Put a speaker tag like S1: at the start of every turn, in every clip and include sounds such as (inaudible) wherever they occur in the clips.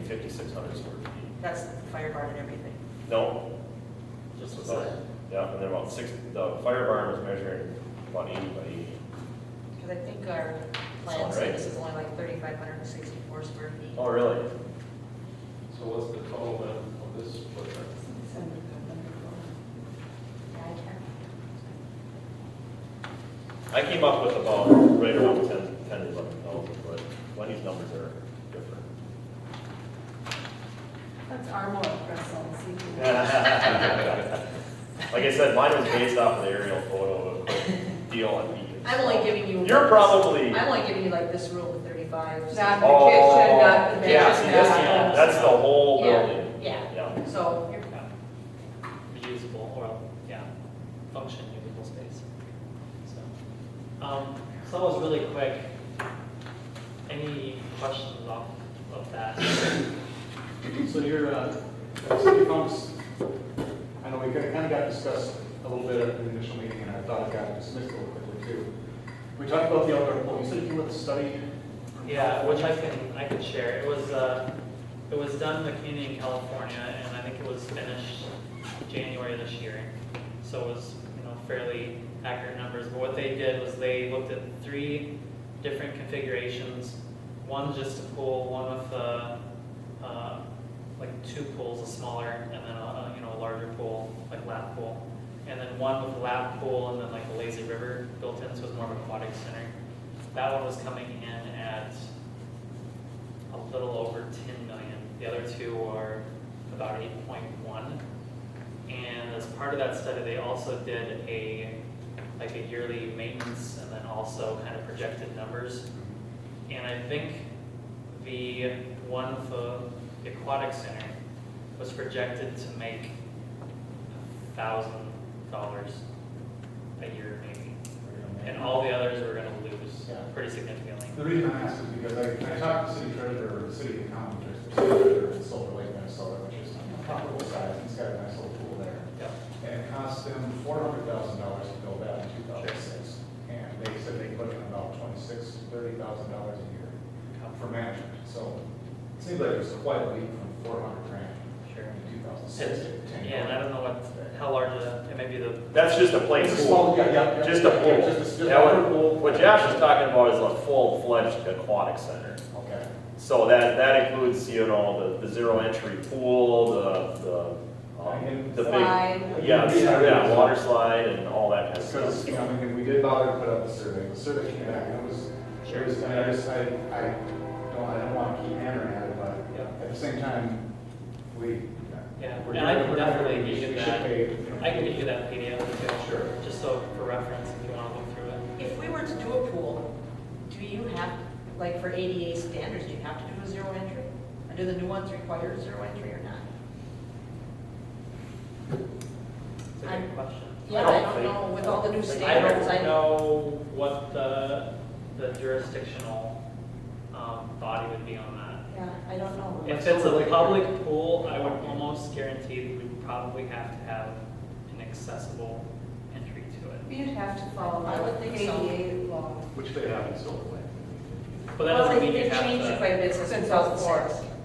S1: hundred square feet.
S2: That's the fire barn and everything.
S1: No,
S3: Just
S1: so-
S3: what's that?
S1: yeah, and then about six, the fire barn was measuring about eighty by eighty.
S2: Because I think our
S1: all
S2: plan said
S1: right.
S2: this is only like 3,564 square feet.
S1: Oh, really?
S3: So what's the total then of this footprint?
S2: Yeah, I
S1: I
S2: can't.
S1: came up with about right around ten, ten to eleven thousand, but Wendy's numbers are
S4: (laughs)
S1: different.
S5: That's our more impressive.
S1: Like I said, mine was based off of the aerial photo of a quick deal on Vegas.
S2: I'm only giving you.
S1: You're probably.
S2: I'm only giving you like this room with 35. so-
S5: Not-
S1: Oh,
S5: kitchen, not the
S1: Yeah,
S5: kitchen,
S1: see, this,
S5: not-
S1: yeah, that's the whole
S2: Yeah,
S1: building.
S2: Yeah,
S1: Yeah,
S2: so you're,
S3: Yeah. Reusable, or, yeah, function, usable space. So, um, so that was really quick. Any questions off of that?
S4: So your, uh, city pumps, I know we kind of got discussed a little bit at the initial meeting, and I thought it got dismissed a little quickly too. We talked about the outdoor pool, you said you came with a study. from
S3: Yeah, which I
S4: California.
S3: can, I can share. It was, uh, it was done in the community in California, and I think it was finished January this year. So it was, you know, fairly accurate numbers. But what they did was they looked at three different configurations. One just a pool, one with, uh, uh, like two pools, a smaller, and then a, a, you know, a larger pool, like lap pool. And then one with lap pool and then like a lazy river built in, so it's more of an aquatic center. That one was coming in at a little over ten million. The other two are about eight point one. And as part of that study, they also did a, like a yearly maintenance and then also kind of projected numbers. And I think the one for the aquatic center was projected to make a thousand dollars a year maybe. And all the others were gonna lose
S4: Yeah.
S3: pretty significantly.
S6: The reason I ask is because I, I talked to city treasurer, or the city accountant, or the city treasurer in Silver Lake, Minnesota, which is comparable size, and it's got a nice little pool there.
S3: Yeah.
S6: And it cost them four hundred thousand dollars to build that in two thousand six. And they said they put in about twenty-six, thirty thousand dollars a year for management, so it seems like there's quite a leap from four hundred grand
S3: Sure.
S6: in two thousand six to ten.
S3: Yeah, and I don't know what, how large the, it may be the,
S1: that's just a plain
S4: It's a
S1: pool.
S4: small, yeah, yeah, yeah.
S1: Just a
S4: Yeah,
S1: pool.
S4: just a- Just a
S1: That
S4: outdoor
S1: one-
S4: pool.
S1: What Josh is talking about is a full-fledged aquatic center.
S6: Okay.
S1: So that, that includes, you know, the, the zero entry pool, the, the, um, the big,
S5: Slide.
S1: yeah, the- yeah, water slide and all that kind of stuff.
S6: Because, you know, I mean, we did bother to put out the survey, the survey came back, and it was, it was, and I just, I, I don't, I don't want to keep hammering at it, but
S3: yeah.
S6: at the same time, we.
S3: Yeah,
S6: we're
S3: and I
S6: doing-
S3: can
S6: we're doing-
S3: definitely get
S6: we should-
S3: you
S6: we should
S3: that.
S6: pay, you know,
S3: I can get you that PDF too.
S6: Sure.
S3: Just so for reference, if you wanna look through it.
S2: if we were to do a pool, do you have, like for ADA standards, do you have to do a zero entry? Or do the new ones require zero entry or not?
S3: It's a
S2: I'm-
S3: good question.
S2: Yeah,
S1: don't
S2: I don't
S1: think-
S2: know, with all the new
S3: I
S2: standards, I
S3: don't
S2: know.
S3: know what the, the jurisdictional, um, body would be on that.
S2: Yeah, I don't know.
S3: If it's a public pool, I would almost guarantee that we would probably have to have an accessible entry to it.
S5: You'd have to follow
S2: I would think so.
S5: ADA law.
S4: Which they have in Silver Lake.
S3: But that
S2: Well,
S3: doesn't
S2: they-
S3: mean you
S2: they've
S3: have to.
S2: changed it quite a bit since
S5: Since
S2: 2004.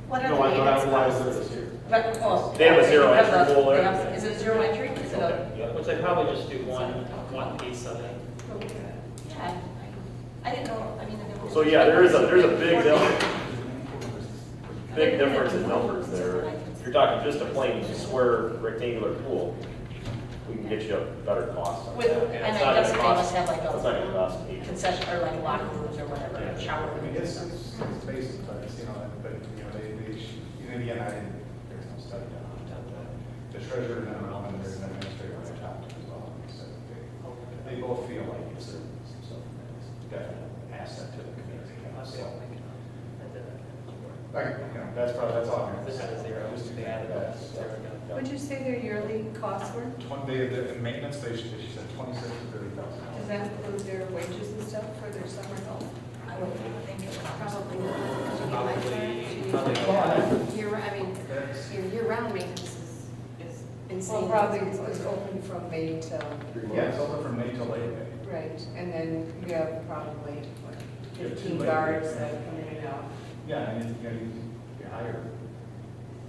S5: What
S4: No, I don't have why is there this here.
S2: But, well.
S1: They have a zero
S2: they have
S1: entry
S2: the-
S1: pool
S2: they
S1: there.
S2: have- Is it zero entry? Is it a?
S1: Yeah.
S3: Which they probably just do one, one piece of it.
S2: Yeah, I I didn't know, I mean. there was-
S1: So yeah, there is a, there's a big, dif- big difference in numbers there. If you're talking just a plain square rectangular pool, we can get you a better cost on
S2: With,
S1: that. It's
S2: and I
S1: not gonna
S2: guess they
S1: cost-
S2: must have like
S1: It's not gonna
S2: a
S1: cost eight.
S2: concession or like locker rooms or whatever, shower
S6: I mean,
S2: rooms.
S6: it's, it's it's basic, but it's, you know, but, you know, they, they, sh- and again, I didn't, there's no study done on it. but The treasurer and I, and there's an administrator on top as well, so they, they both feel like it's a, so, it's definitely an asset to the community. So, Like, you know, that's probably, that's all. I'm gonna
S3: This had a
S6: say.
S3: zero,
S6: Just do
S3: they added
S6: that.
S3: that, there we
S5: Would you say their yearly costs were?
S6: Twenty, they, the, in maintenance, they, she she said twenty-six to thirty thousand
S5: Does
S6: dollars.
S5: that include their wages and stuff for their summer help?
S2: I would think it would
S5: Probably.
S2: probably.
S3: Probably- probably.
S5: Year, I mean,
S6: That's-
S5: your year-round maintenance is, is
S7: Well,
S5: insane.
S7: probably it's open from May till,
S6: Yeah, it's open from May till late May.
S7: right, and then you have probably what,
S6: You have two
S7: fifteen
S6: labor.
S7: guards that come in and out.
S6: Yeah, and you, you know, you